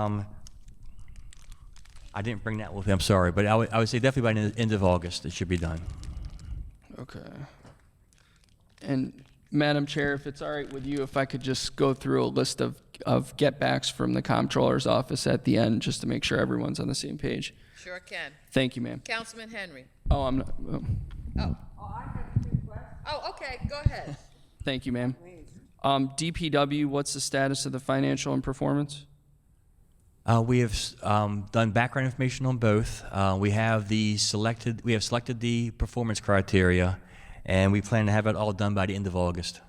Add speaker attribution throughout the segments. Speaker 1: Um, I didn't bring that with me, I'm sorry, but I would, I would say definitely by the end of August, it should be done.
Speaker 2: Okay. And Madam Chair, if it's all right with you, if I could just go through a list of, of getbacks from the comptroller's office at the end, just to make sure everyone's on the same page.
Speaker 3: Sure can.
Speaker 2: Thank you, ma'am.
Speaker 3: Councilman Henry.
Speaker 2: Oh, I'm, not- oh,
Speaker 3: Oh. Oh, okay, go ahead.
Speaker 2: thank you, ma'am. Um, DPW, what's the status of the financial and performance?
Speaker 1: Uh, we have um, done background information on both. Uh, we have the selected, we have selected the performance criteria, and we plan to have it all done by the end of August.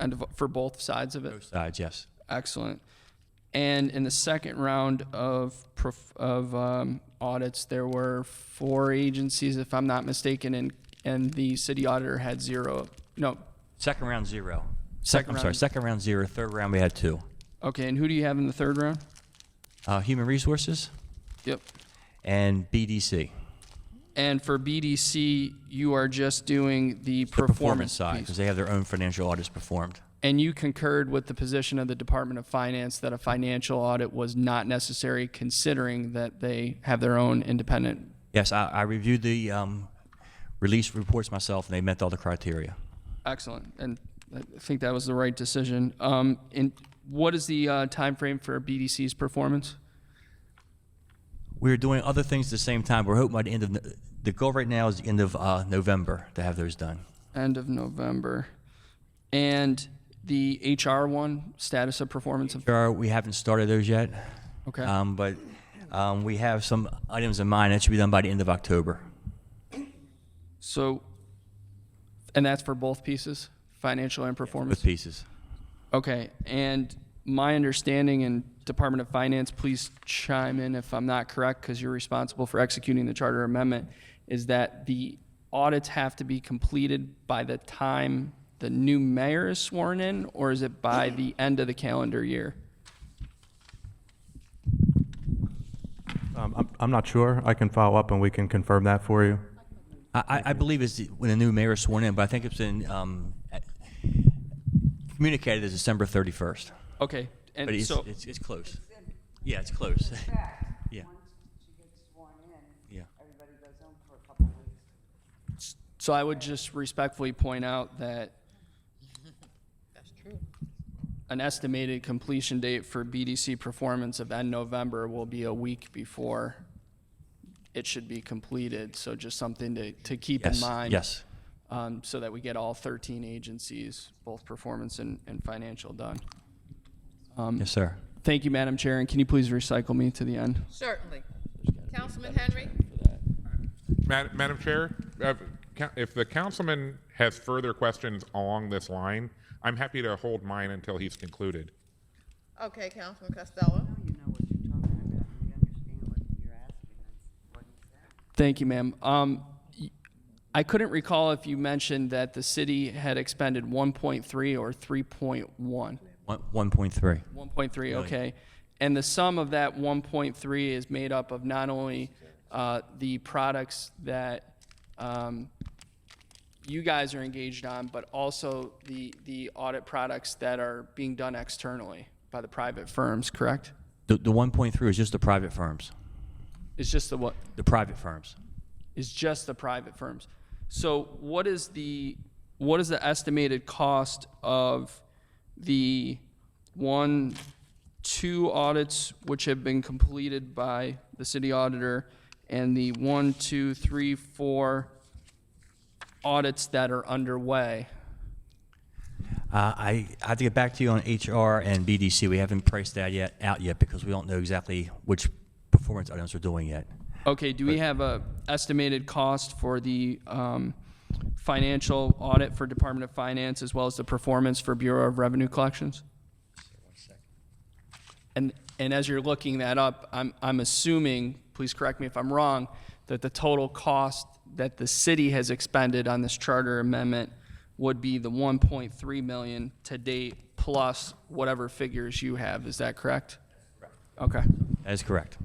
Speaker 2: And of- for both sides of it?
Speaker 1: Both sides, yes.
Speaker 2: Excellent. And in the second round of prof- of um, audits, there were four agencies, if I'm not mistaken, and and the city auditor had zero. No,
Speaker 1: Second round, zero.
Speaker 2: Second
Speaker 1: Second, I'm sorry,
Speaker 2: round-
Speaker 1: second round, zero. Third round, we had two.
Speaker 2: okay. And who do you have in the third round?
Speaker 1: Uh, Human Resources
Speaker 2: Yep.
Speaker 1: and BDC.
Speaker 2: And for BDC, you are just doing
Speaker 1: The
Speaker 2: the,
Speaker 1: performance
Speaker 2: performance,
Speaker 1: side,
Speaker 2: piece.
Speaker 1: because they have their own financial audits performed.
Speaker 2: And you concurred with the position of the Department of Finance that a financial audit was not necessary, considering that they have their own independent
Speaker 1: Yes, I, I reviewed the um, release reports myself, and they met all the criteria.
Speaker 2: Excellent, and I think that was the right decision. Um, and what is the uh, timeframe for BDC's performance?
Speaker 1: We are doing other things at the same time. We're hoping by the end of the- the goal right now is the end of uh, November to have those done.
Speaker 2: End of November. And the HR one, status of performance of,
Speaker 1: There are, we haven't started those yet,
Speaker 2: okay.
Speaker 1: um, but um, we have some items in mind that should be done by the end of October.
Speaker 2: So, and that's for both pieces, financial and performance?
Speaker 1: With pieces.
Speaker 2: Okay, and my understanding and Department of Finance, please chime in if I'm not correct, because you're responsible for executing the charter amendment, is that the audits have to be completed by the time the new mayor is sworn in, or is it by the end of the calendar year?
Speaker 4: Um, I'm, I'm not sure. I can follow up and we can confirm that for you.
Speaker 1: I, I- I believe it's the- when the new mayor is sworn in, but I think it's been um, at- communicated as December 31st.
Speaker 2: Okay,
Speaker 1: But
Speaker 2: and
Speaker 1: it's,
Speaker 2: so,
Speaker 1: it's, it's close. Yeah, it's close.
Speaker 5: fact,
Speaker 1: Yeah.
Speaker 5: once she gets sworn in,
Speaker 1: Yeah.
Speaker 5: everybody goes home for a couple of weeks.
Speaker 2: so I would just respectfully point out that
Speaker 3: That's true.
Speaker 2: an estimated completion date for BDC performance of end November will be a week before it should be completed, so just something to, to keep in
Speaker 1: Yes,
Speaker 2: mind.
Speaker 1: yes.
Speaker 2: Um, so that we get all thirteen agencies, both performance and, and financial done.
Speaker 1: Yes, sir.
Speaker 2: Thank you, Madam Chair, and can you please recycle me to the end?
Speaker 3: Certainly. Councilman Henry?
Speaker 6: Madam, Madam Chair, uh, coun- if the councilman has further questions along this line, I'm happy to hold mine until he's concluded.
Speaker 3: Okay, Councilman Costello?
Speaker 5: Now you know what you're talking about, and you understand what you're asking, that's what he said.
Speaker 2: Thank you, ma'am. Um, y- I couldn't recall if you mentioned that the city had expended one point three or three point one.
Speaker 1: One, 1.3.
Speaker 2: 1.3, okay. And the sum of that 1.3 is made up of not only uh, the products that um, you guys are engaged on, but also the, the audit products that are being done externally by the private firms, correct?
Speaker 1: The, the 1.3 is just the private firms.
Speaker 2: It's just the what?
Speaker 1: The private firms.
Speaker 2: is just the private firms. So what is the what is the estimated cost of the one two audits which have been completed by the city auditor and the one two three four audits that are underway?
Speaker 1: Uh, I, I have to get back to you on HR and BDC. We haven't priced that yet out yet because we don't know exactly which performance items we're doing yet.
Speaker 2: Okay, do we have a estimated cost for the um, financial audit for Department of Finance as well as the performance for Bureau of Revenue Collections? And, and as you're looking that up, I'm, I'm assuming, please correct me if I'm wrong, that the total cost that the city has expended on this charter amendment would be the 1.3 million to date plus whatever figures you have, is that correct? Okay.
Speaker 1: That is correct.